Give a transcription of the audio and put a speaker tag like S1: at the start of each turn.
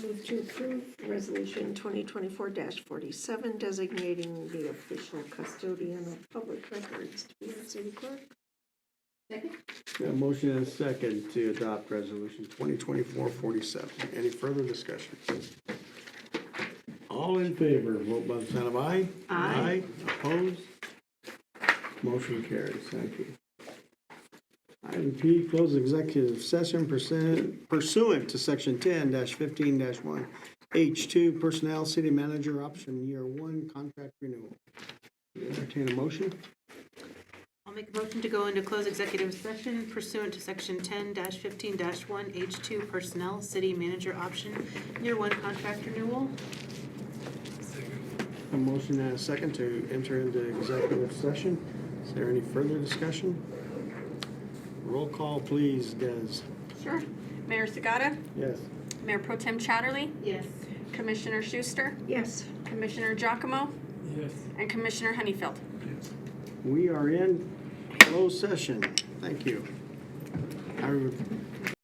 S1: move to approve Resolution 2024-47 designating the official custodian of public records to be our city clerk.
S2: Second?
S3: Got a motion and a second to adopt resolution 2024-47. Any further discussion? All in favor, vote by the sign of aye.
S2: Aye.
S3: Opposed? Motion carries. Thank you. Item P, close executive session pursuant pursuant to section 10-15-1. H2, personnel, city manager, option year one, contract renewal. Entertain a motion?
S2: I'll make a motion to go into closed executive session pursuant to section ten fifteen one H two personnel, city manager option, year one contract renewal.
S3: A motion and a second to enter into executive session. Is there any further discussion? Roll call, please, Des.
S4: Sure. Mayor Sagata,
S3: Yes.
S4: Mayor Pro Tem Chatterley,
S2: Yes.
S4: Commissioner Schuster,
S1: Yes.
S4: Commissioner Giacomo, and Commissioner Honeyfield.
S3: We are in closed session. Thank you. I